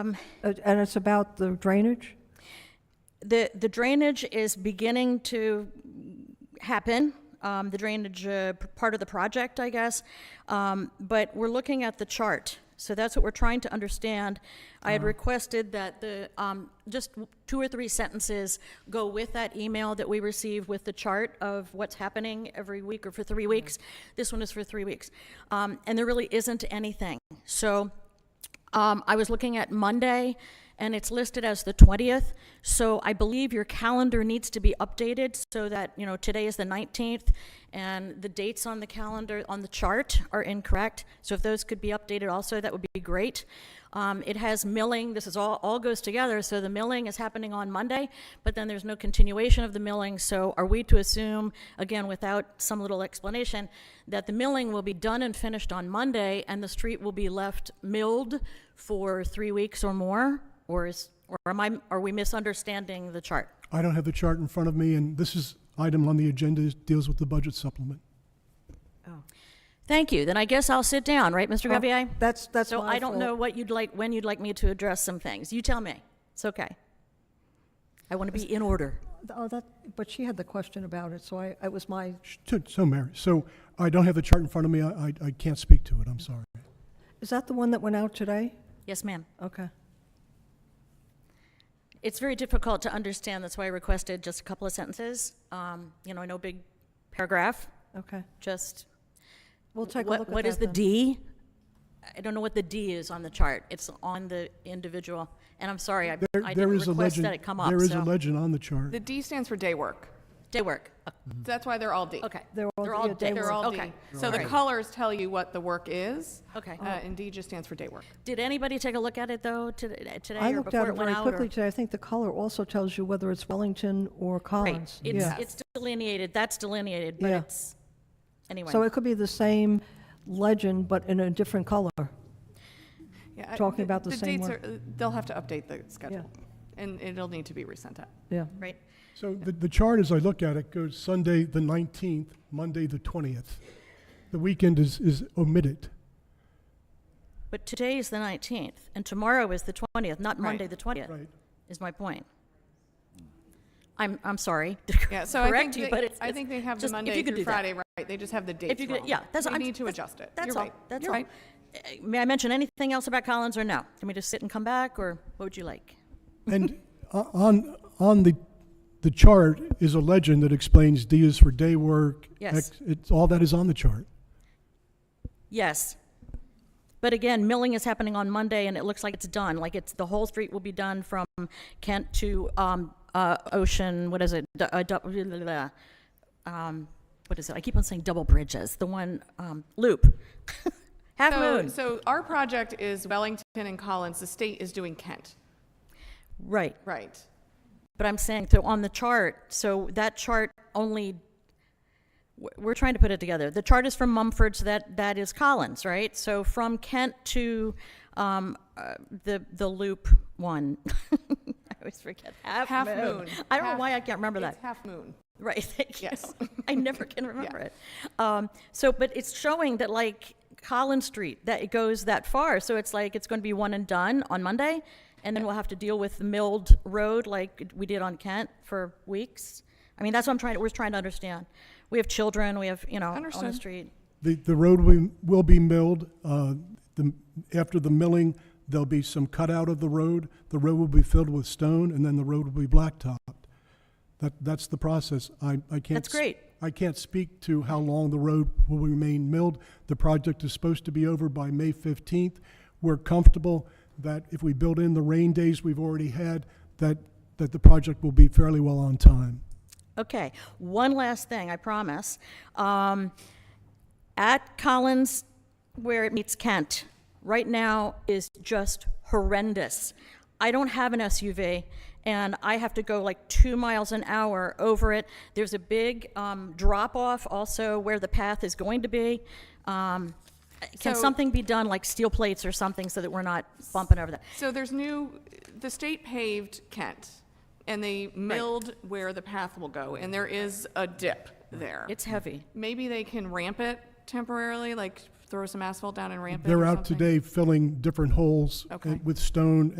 Uh, And it's about the drainage? The, the drainage is beginning to happen, um, the drainage, uh, p- part of the project, I guess. Um, but we're looking at the chart, so that's what we're trying to understand. I had requested that the, um, just w- two or three sentences go with that email that we receive with the chart of what's happening every week or for three weeks. This one is for three weeks. Um, and there really isn't anything. So um, I was looking at Monday, and it's listed as the 20th, so I believe your calendar needs to be updated so that, you know, today is the 19th, and the dates on the calendar, on the chart are incorrect. So if those could be updated also, that would be great. Um, It has milling, this is all, all goes together, so the milling is happening on Monday, but then there's no continuation of the milling, so are we to assume, again, without some little explanation, that the milling will be done and finished on Monday, and the street will be left milled for three weeks or more? Or is, or am I, are we misunderstanding the chart? I don't have the chart in front of me, and this is item on the agenda is- deals with the budget supplement. Thank you, then I guess I'll sit down, right, Mr. Gavier? That's, Oh, that's So my I don't fault. know what you'd like, when you'd like me to address some things. You tell me, it's okay. I want to be in order. Oh, that, but she had the question about it, so I, it was my, Sh- so- So, Mary, so I don't have the chart in front of me. I, I- I can't speak to it. I'm sorry. is that the one that went out today? Yes, ma'am? Okay. It's very difficult to understand, that's why I requested just a couple of sentences. Um, You know, no big paragraph, Okay. just. We'll take a what- look at What is that the then. D? I don't know what the D is on the chart. It's on the individual, and I'm sorry, I There- I there didn't is a request that legend- it come up, There is a so. legend on the chart. The D stands for day work. Day work, That's why they're all D. okay. They're all- yeah, day day Mm-hmm. They're work. all D. Okay. So the Right. colors tell you what the work is. Okay. uh, And D just stands for day work. Did anybody take a look at it, though, to- I today or looked at before it it went very out? quickly or- today. I think the color also tells you whether it's Wellington or Right. Collins. It's Yeah. it's delineated, that's delineated, but Yeah. it's, anyway. So it could be the same legend, but in a different color. Yeah, I- Talking about the same dates work. are- uh, They'll have to update the schedule, and it'll need to be resent out. Yeah. Right, So the, the chart, as I look at it, goes Sunday, the 19th, Monday, the 20th. The weekend is, is omitted. but today is the 19th, and tomorrow is the 20th, not Monday, the 20th. Right. is my point. Mm. I'm, I'm sorry. Yeah, so I think, Correct you, but they- it's. I think they have the just- if Monday you could do through that. Friday, right? They just have the If dates you could, wrong. yeah, that's. They I'm- need to that's- adjust it. That's You're all, right. that's You're all. right. Uh, May I mention anything else about Collins or no? Can we just sit and come back, or what would you like? And o- on, on the, the chart is a legend that explains D is for day work. Yes. X- It's, all that is on the chart. Yes. But again, milling is happening on Monday, and it looks like it's done, like it's, the whole street will be done from Kent to, um, uh, Ocean, what is it? Du- uh, du- blah, blah, blah. Um, what is it? I keep on saying double bridges, the one, um, loop. Half So, Moon, so our project is Wellington and Collins. The state is doing Kent, right. right? But I'm saying, so on the chart, so that chart only, we're- we're trying to put it together. The chart is from Mumford, so that, that is Collins, right? So from Kent to um, uh, the, the loop one. I always forget. Half Moon. I don't know Half- why I can't remember that. It's half moon. Right, thank you. Yes. I never can remember it. Um, so, but it's showing that like Collins Street, that it goes that far. So it's like, it's going to be one and done on Monday. And then we'll have to deal with the milled road like we did on Kent for weeks. I mean, that's what I'm trying, we're trying to understand. We have children, we have, you know, on the Understood. street. The, the road will, will be milled. uh, the- After the milling, there'll be some cutout of the road. The road will be filled with stone, and then the road will be blacktopped. That, that's the process. I, I can't. That's great. I can't speak to how long the road will remain milled. The project is supposed to be over by May 15th. We're comfortable that if we build in the rain days we've already had, that, that the project will be fairly well on time. Okay, one last thing, I promise. Um, at Collins, where it meets Kent, right now is just horrendous. I don't have an SUV, and I have to go like two miles an hour over it. There's a big um, drop off also where the path is going to be. Um, can So- something be done, like steel plates or something, so that we're not bumping over that? So there's new, the state paved Kent, and they milled where the path will go, and there is a dip there. It's heavy. Maybe they can ramp it temporarily, like throw some asphalt down and ramp it or They're out something? today filling different holes uh, Okay. with stone